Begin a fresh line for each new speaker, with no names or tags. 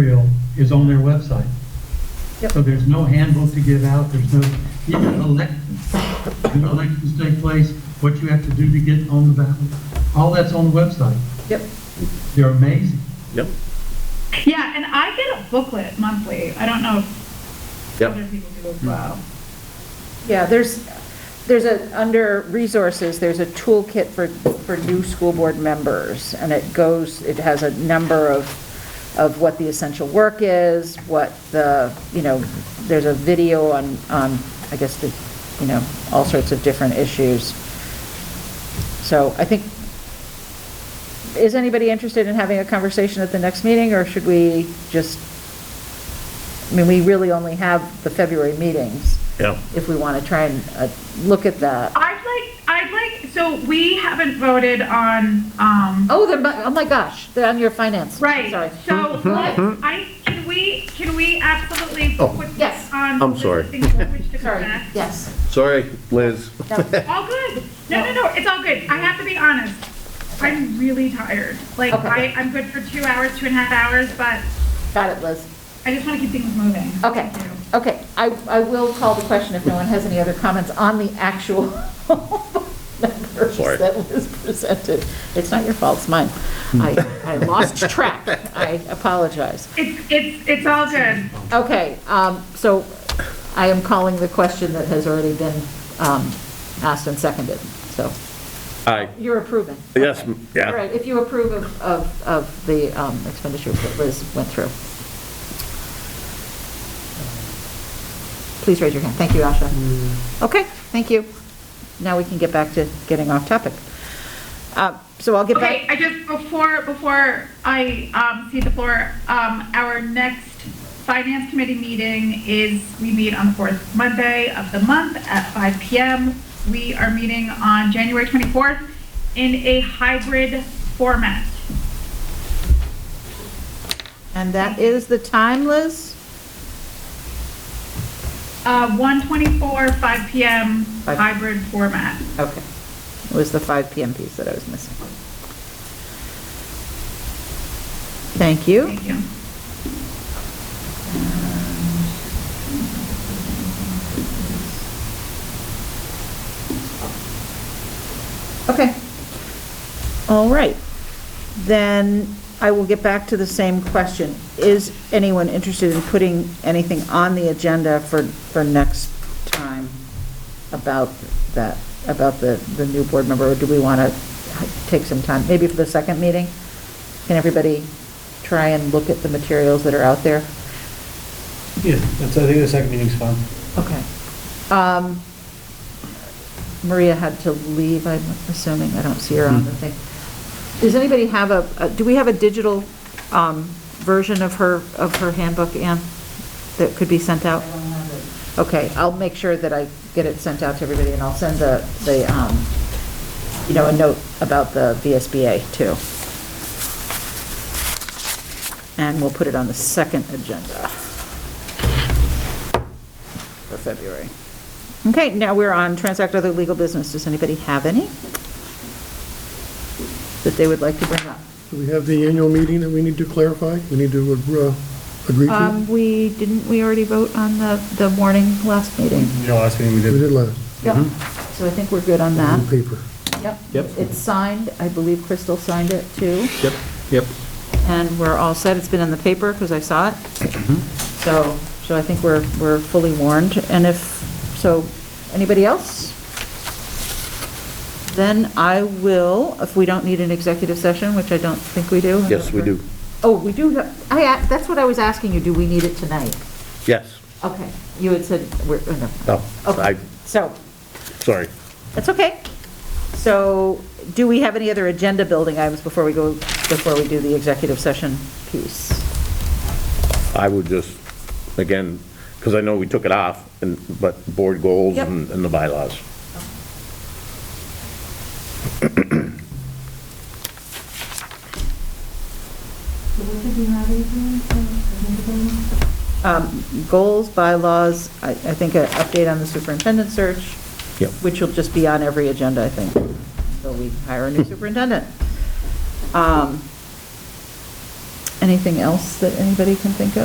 material is on their website.
Yep.
So there's no handbook to give out, there's no, even elections, when elections take place, what you have to do to get on the ballot, all that's on the website.
Yep.
They're amazing.
Yep,
Yeah, and I get a booklet monthly. I don't know if other
yep. Mm.
people do as well.
Yeah, there's, there's a, under resources, there's a toolkit for, for new school board members, and it goes, it has a number of, of what the essential work is, what the, you know, there's a video on, on, I guess, the, you know, all sorts of different issues. So I think, is anybody interested in having a conversation at the next meeting, or should we just, I mean, we really only have the February meetings
Yeah.
if we want to try and uh, look at that.
I'd like, I'd like, so we haven't voted on, um,
Oh, they're, bu- oh my gosh, they're on your finance.
right.
Sorry.
So let's, I, can we, can we absolutely
Hmm, Oh.
put
Yes.
this on?
I'm sorry.
listing language to
Sorry,
correct?
yes.
Sorry, Liz.
No.
All good. No, no, no, it's all good. I have to be honest. I'm really tired. Like,
Okay.
I, I'm good for two hours, two and a half hours, but
Got it, Liz.
I just want to keep things moving.
Okay,
Thank you.
okay. I, I will call the question if no one has any other comments on the actual numbers
Sorry.
that Liz presented. It's not your fault, it's mine. I, I lost track. I apologize.
It's, it's, it's all good.
Okay, um, so I am calling the question that has already been um, asked and seconded, so
Aye.
you're approving.
Yes,
Okay.
m- yeah.
All right, if you approve of, of, of the um, expenditure that Liz went through. Please raise your hand. Thank you, Asha. Okay, thank you. Now we can get back to getting off topic. Uh, So I'll get
Okay,
back.
I just, before, before I um, cede the floor, um, our next finance committee meeting is, we meet on the fourth Monday of the month at 5 PM. We are meeting on January 24th in a hybrid format.
And that is the time, Liz?
Uh, 1:24, 5 PM,
Five.
hybrid format.
Okay. It was the 5 PM piece that I was missing. Thank you.
Thank you.
Okay. All right. Then I will get back to the same question. Is anyone interested in putting anything on the agenda for, for next time about that, about the, the new board member? Or do we want to take some time, maybe for the second meeting? Can everybody try and look at the materials that are out there?
Yeah, that's, I think the second meeting's fine.
Okay. Um, Maria had to leave, I'm assuming, I don't see her on the thing. Does anybody have a, a- do we have a digital um, version of her, of her handbook, Anne, that could be sent out? Okay, I'll make sure that I get it sent out to everybody, and I'll send the, the, um, you know, a note about the VSBA, too. And we'll put it on the second agenda for February. Okay, now we're on transact other legal business. Does anybody have any that they would like to bring up?
Do we have the annual meeting that we need to clarify? We need to uh, agree to?
Um, we, didn't we already vote on the, the warning last meeting?
You know, last meeting we
We did
did.
last,
Yep. So I think we're good on
on
that.
paper.
Yep.
Yep.
It's signed. I believe Crystal signed it too.
Yep, yep.
And we're all set. It's been in the paper because I saw it.
Mm-hmm.
So, so I think we're, we're fully warned. And if, so, anybody else? Then I will, if we don't need an executive session, which I don't think we do.
Yes, we do.
Oh, we do, have- I, a- that's what I was asking you, do we need it tonight?
Yes.
Okay, you had said, we're, oh, no.
No, I,
Okay, so,
sorry.
that's okay. So, do we have any other agenda building items before we go, before we do the executive session piece?
I would just, again, because I know we took it off, and, but board goals
Yep.
and and the bylaws.
Um, Goals, bylaws, I, I think an update on the superintendent search.
Yep.
Which will just be on every agenda, I think, until we hire a new superintendent. Um, Anything else that anybody can think of?